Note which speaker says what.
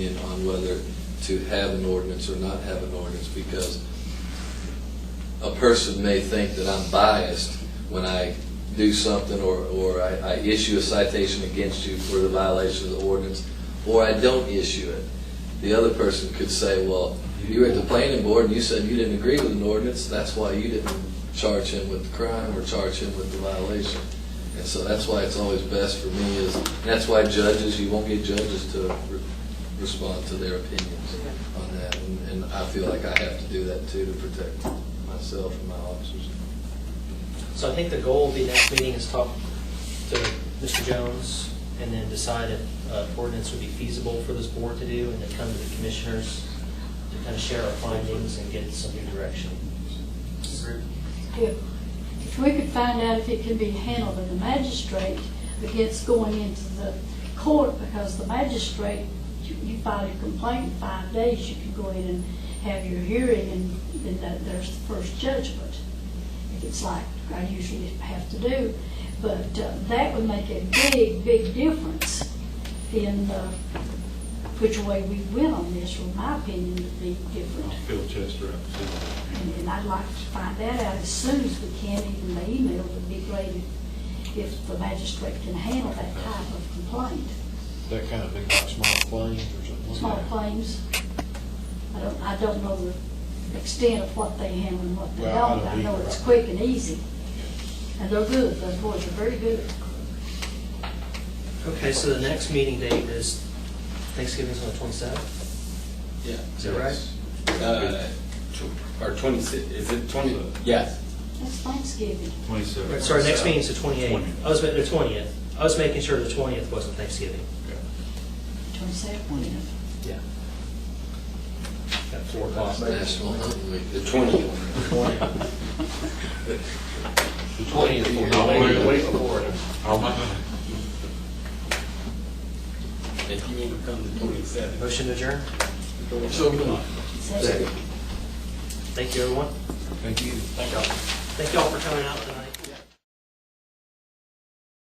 Speaker 1: opinion on whether to have an ordinance or not have an ordinance, because a person may think that I'm biased when I do something, or, or I, I issue a citation against you for the violation of the ordinance, or I don't issue it. The other person could say, well, you were at the planning board and you said you didn't agree with an ordinance, that's why you didn't charge him with the crime or charge him with the violation. And so that's why it's always best for me is, and that's why judges, you won't get judges to re- respond to their opinions on that. And- And I feel like I have to do that too to protect myself and my officers.
Speaker 2: So I think the goal of the next meeting is talk to Mr. Jones and then decide if uh, ordinance would be feasible for this board to do and then come to the commissioners to kind of share our findings and get some new direction.
Speaker 3: If if we could find out if it can be handled in the magistrate against going into the court, because the magistrate, you you file your complaint in five days, you can go in and have your hearing, and then that- there's the first judgment. If it's like I usually have to do, but uh, that would make a big, big difference in uh, which way we went on this, or my opinion would be different.
Speaker 4: Phil Chester up.
Speaker 3: And and I'd like to find that out as soon as we can, even by email would be great if- if the magistrate can handle that type of complaint.
Speaker 5: That kind of thing, like small claims or something.
Speaker 3: Small claims, I don't, I don't know the extent of what they handle and what they
Speaker 5: Well, I
Speaker 3: don't.
Speaker 5: don't
Speaker 3: I know
Speaker 5: either.
Speaker 3: it's quick and easy, and they're good, those boys are very good.
Speaker 2: Okay, so the next meeting date is Thanksgiving's on the twenty-seventh?
Speaker 6: Yeah.
Speaker 2: Is that right?
Speaker 6: Uh, tw- Or twenty-six, is it twenty, yes.
Speaker 3: That's Thanksgiving.
Speaker 4: Twenty-seven.
Speaker 2: Right, so our next meeting's the twenty-eighth.
Speaker 4: 20th.
Speaker 2: I was, ma- the twentieth. I was making sure the twentieth wasn't Thanksgiving.
Speaker 3: Twenty-seven,
Speaker 2: Yeah. At four o'clock.
Speaker 1: National Hunting Week.
Speaker 6: The twentieth. The twentieth. If you want to come to twenty-seven.
Speaker 2: Motion to adjourn.
Speaker 3: Second.
Speaker 2: Thank you, everyone.
Speaker 5: Thank you.
Speaker 2: Thank y'all for coming out tonight.